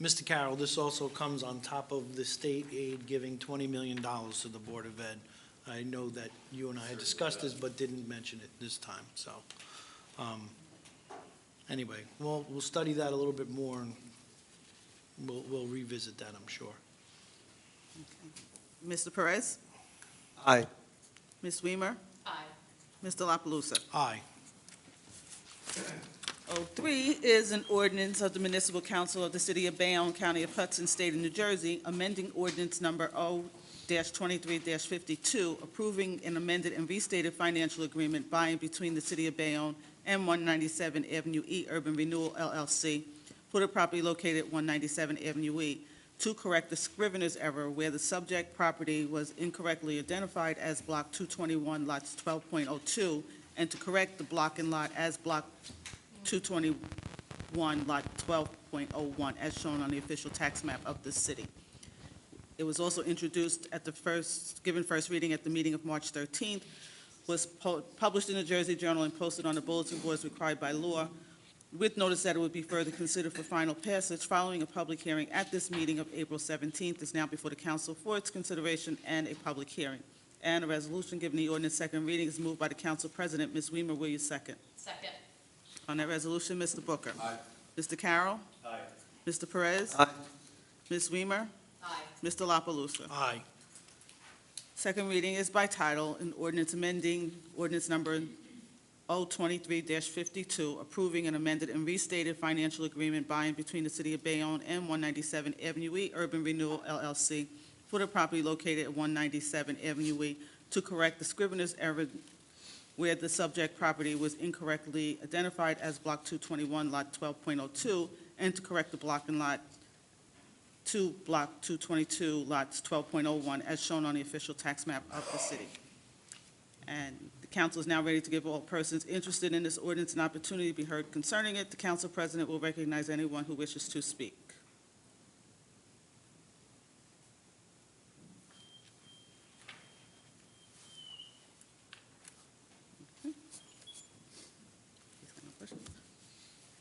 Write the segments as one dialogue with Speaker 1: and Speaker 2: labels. Speaker 1: Mr. Carroll, this also comes on top of the state aid giving $20 million to the Board of Ed. I know that you and I had discussed this, but didn't mention it this time, so. um, Anyway, well, we'll study that a little bit more, and we'll we'll revisit that, I'm sure.
Speaker 2: Mr. Perez?
Speaker 3: Aye.
Speaker 2: Ms. Weimer?
Speaker 4: Aye.
Speaker 2: Mr. La Palusa?
Speaker 1: Aye.
Speaker 2: Oh, three is an ordinance of the Municipal Council of the City of Bayonne, County of Hudson, State of New Jersey, amending ordinance number O-23-52, approving an amended and restated financial agreement by and between the City of Bayonne and 197 Avenue E Urban Renewal LLC for the property located at 197 Avenue E to correct the scrivener's error where the subject property was incorrectly identified as Block 221, lots 12.02, and to correct the block and lot as Block 221, Lot 12.01, as shown on the official tax map of the city. It was also introduced at the first, given first reading at the meeting of March 13th, was pu- published in the Jersey Journal and posted on the bulletin boards required by law, with notice that it would be further considered for final passage following a public hearing at this meeting of April 17th, is now before the council for its consideration and a public hearing. And a resolution giving the ordinance second reading is moved by the council president. Ms. Weimer, will you second?
Speaker 4: Second.
Speaker 2: On that resolution, Mr. Booker.
Speaker 3: Aye.
Speaker 2: Mr. Carroll.
Speaker 3: Aye.
Speaker 2: Mr. Perez.
Speaker 3: Aye.
Speaker 2: Ms. Weimer.
Speaker 4: Aye.
Speaker 2: Mr. La Palusa.
Speaker 1: Aye.
Speaker 2: Second reading is by title, an ordinance amending ordinance number O-23-52, approving an amended and restated financial agreement by and between the City of Bayonne and 197 Avenue E Urban Renewal LLC for the property located at 197 Avenue E to correct the scrivener's error where the subject property was incorrectly identified as Block 221, Lot 12.02, and to correct the block and lot to Block 222, lots 12.01, as shown on the official tax map of the city. And the council is now ready to give all persons interested in this ordinance an opportunity to be heard concerning it. The council president will recognize anyone who wishes to speak.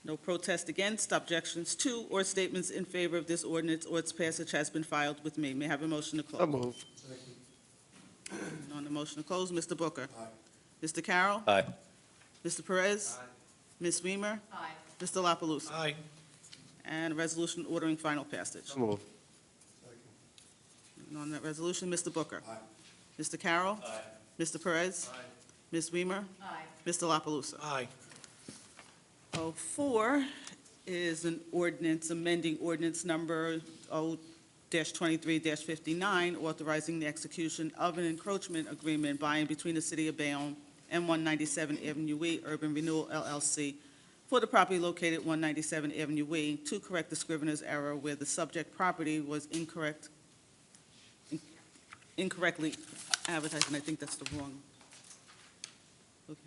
Speaker 2: No protest against, objections to, or statements in favor of this ordinance or its passage has been filed with me. May I have a motion to close?
Speaker 3: So moved.
Speaker 2: And On the motion to close, Mr. Booker. Aye. Mr. Carroll.
Speaker 3: Aye.
Speaker 2: Mr. Perez. Aye. Ms. Weimer.
Speaker 4: Aye.
Speaker 2: Mr. La Palusa.
Speaker 1: Aye.
Speaker 2: And a resolution ordering final passage.
Speaker 3: So moved.
Speaker 2: And on that resolution, Mr. Booker. Aye. Mr. Carroll. Aye. Mr. Perez. Aye. Ms. Weimer.
Speaker 4: Aye.
Speaker 2: Mr. La Palusa.
Speaker 1: Aye.
Speaker 2: Oh, four is an ordinance amending ordinance number O twenty-three fifty-nine, authorizing the execution of an encroachment agreement by and between the city of Bayonne and one ninety-seven Avenue E Urban Renewal LLC for the property located one ninety-seven Avenue E to correct the scrivener's error where the subject property was incorrect, incorrectly advertised, and I think that's the wrong. Okay.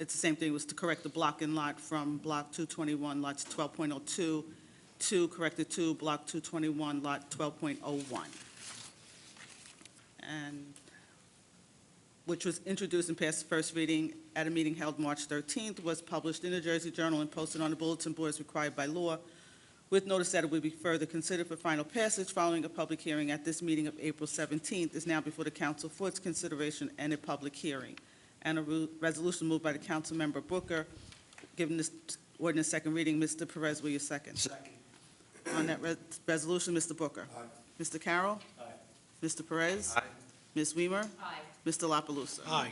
Speaker 2: It's the same thing, was to correct the block and lot from block 221, lots 12.02, to correct the two, block 221, lot 12.01. And, which was introduced and passed first reading at a meeting held March 13th, was published in the Jersey Journal and posted on the bulletin boards required by law, with notice that it would be further considered for final passage following a public hearing at this meeting of April 17th, is now before the council for its consideration and a public hearing and a ru- resolution moved by the Councilmember Booker, given this ordinance second reading. Mr. Perez, will you second? Second. On that re- resolution, Mr. Booker. Aye. Mr. Carroll. Aye. Mr. Perez.
Speaker 3: Aye.
Speaker 2: Ms. Weimer.
Speaker 4: Aye.
Speaker 2: Mr. La Palusa.
Speaker 1: Aye.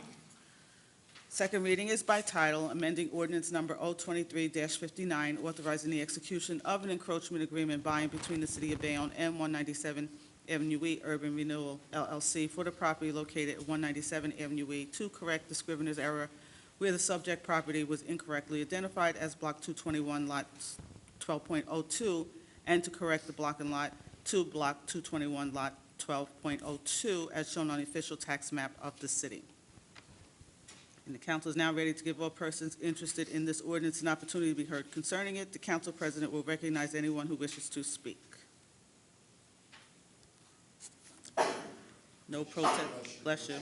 Speaker 2: Second reading is by title, amending ordinance number O-23-59, authorizing the execution of an encroachment agreement by and between the City of Bayonne and 197 Avenue E Urban Renewal LLC for the property located at 197 Avenue E to correct the scrivener's error where the subject property was incorrectly identified as Block 221, Lot 12.02, and to correct the block and lot to Block 221, Lot 12.02, as shown on the official tax map of the city. And the council is now ready to give all persons interested in this ordinance an opportunity to be heard concerning it. The council president will recognize anyone who wishes to speak. No protest, bless you.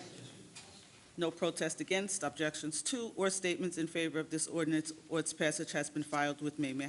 Speaker 2: No protest against, objections to, or statements in favor of this ordinance or its passage has been filed with me. May I